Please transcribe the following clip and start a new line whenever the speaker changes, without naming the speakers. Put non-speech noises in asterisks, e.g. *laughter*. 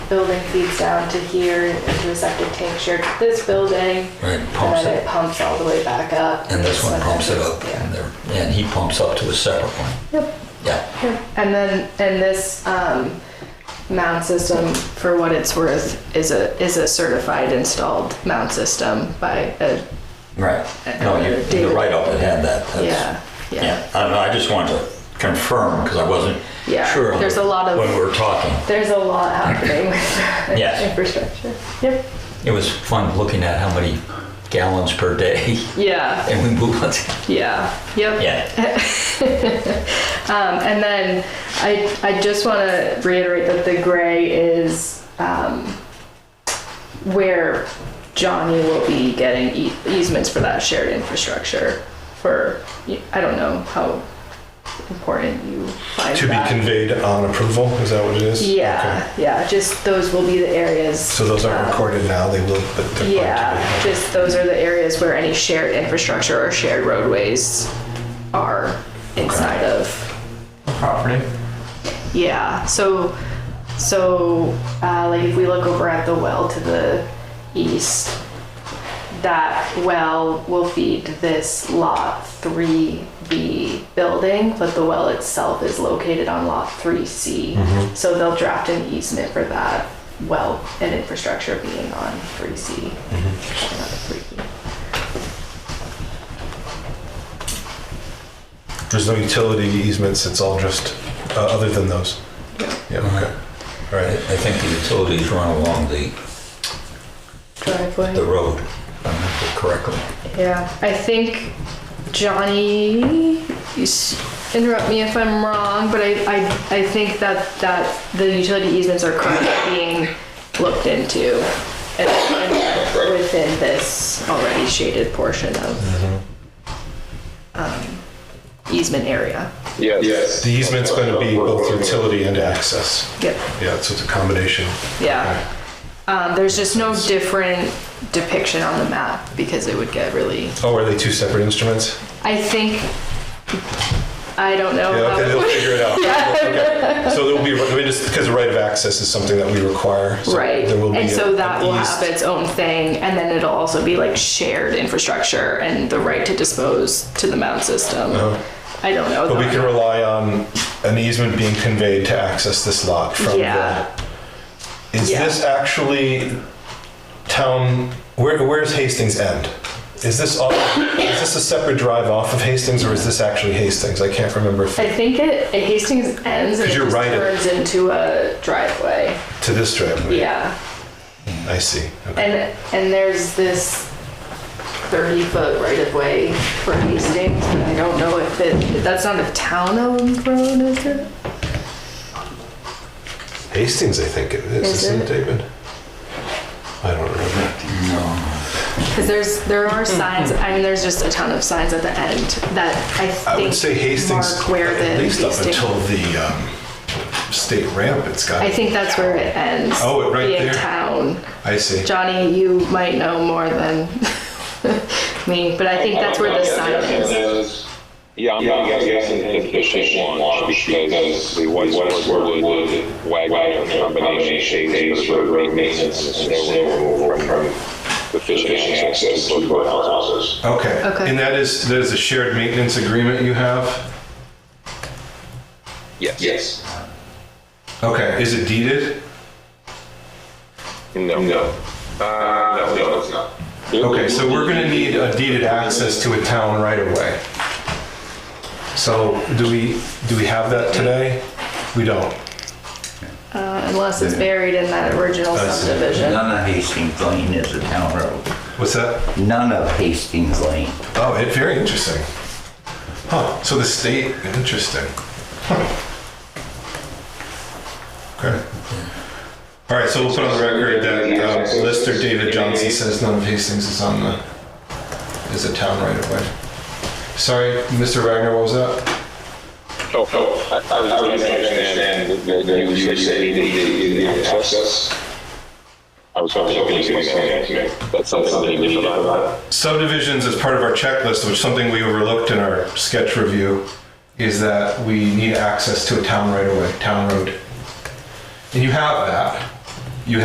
building feeds down to here into the septic tank shared with this building.
Right,
And
pumps
then
it.
it pumps all the way back up.
And this one pumps it up,
Yeah.
and there, and he pumps up to a separate one.
Yep.
Yeah,
And then, and this um, mound system, for what it's worth, is a is a certified installed mound system by a
right. No, you, the write-up had had that. That's-
yeah yeah.
Yeah, I don't know, I just wanted to confirm, because I wasn't
Yeah,
sure
there's a lot of-
when we were talking.
There's a lot happening with
*laughs* Yes.
*laughs* infrastructure. Yep.
It was fun looking at how many gallons per day, *laughs*
Yeah.
and we move on to,
Yeah. Yep. *laughs*
yeah,
Um, and then I I just want to reiterate that the gray is um, where Johnny will be getting e- easements for that shared infrastructure. For I don't know how important you find
To be
that.
conveyed on approval, is that what it is?
Yeah,
Okay.
yeah. Just those will be the areas.
So those aren't
um,
recorded now, they will, but they're. going to
Yeah,
be.
just those are the areas where any shared infrastructure or shared roadways are inside of.
property.
Yeah, so, so, uh, like if we look over at the well to the east, that well will feed this lot three B building, but the well itself is located on lot three C.
Mm-hmm.
So they'll draft an easement for that well and infrastructure being on three C.
mm-hmm. There's no utility easements, it's all just, uh, other than those?
Yeah.
Yeah, okay. All
I
right,
I think the utilities run along the,
Driveway.
the road, if I remember correctly.
Yeah, I think Johnny. You s- interrupt me if I'm wrong, but I, I, I think that that the utility easements are currently being looked into and, and within this already shaded portion of um, easement area.
Yes.
the easement's gonna be both utility and access.
Yep.
Yeah, so it's a combination.
Yeah. Um, there's just no different depiction on the map because it would get really.
Oh, are they two separate instruments?
I think. I don't know.
Yeah,
how
okay,
it *laughs*
they'll
would-
figure it out. Okay. So there will be, I mean, just because the right of access is something that we require. so
Right.
There will be.
And so
an
that will
east-
have its own thing, and then it'll also be like shared infrastructure and the right to dispose to the mound system. I don't know.
Uh-huh. But we
though.
can rely on an easement being conveyed to access this lot from
Yeah.
the. Is
Yeah.
this actually town, where, where's Hastings end? Is this off, is this a separate drive off of Hastings or is this actually Hastings? I can't remember if,
I think it, it Hastings ends and it
'Cause you're
just
right at-
turns into a driveway.
to this driveway.
Yeah.
I see. Okay.
And and there's this 30 foot right of way for Hastings, but I don't know if it, that's not a town owned road, is it?
Hastings, I think it is,
Is
isn't it,
it?
David? I don't remember.
Because there's there are
Hmm.
signs. I mean, there's just a ton of signs at the end that I think
I would say Hastings,
mark where the
at least up
Hastings-
until the um, state ramp, it's got.
I think that's where it ends.
Oh, it right
being
there.
town.
I see.
Johnny, you might know more than *laughs* me, but I think that's where the sign is.
Yeah, I'm not guessing it's the same one because the West Westward Wood Wagner combination shades for road maintenance and they were removed from the fishing access to our houses.
Okay.
Okay.
And that is, that is a shared maintenance agreement you have?
Yes. Yes.
Okay. Is it deeded?
No. No. Uh, no, no, it's not.
Okay, so we're gonna need a deeded access to a town right away. So do we, do we have that today? We don't.
Uh, unless it's buried in that original
I see.
subdivision.
None of Hastings Lane is a town road.
What's that?
None of Hastings Lane.
Oh, it, very interesting. Huh, so the state, interesting. Okay. All right, so we'll put on the record that um, Lister David Johnson says none of Hastings is on the, is a town right away. Sorry, Mr. Wagner, what was that?
Oh, oh, I, I was trying to understand that that you you said you needed access. I was hoping you could explain that to me. That's something they need to know about.
Subdivisions as part of our checklist, which something we overlooked in our sketch review, is that we need access to a town right away, town road. And you have that.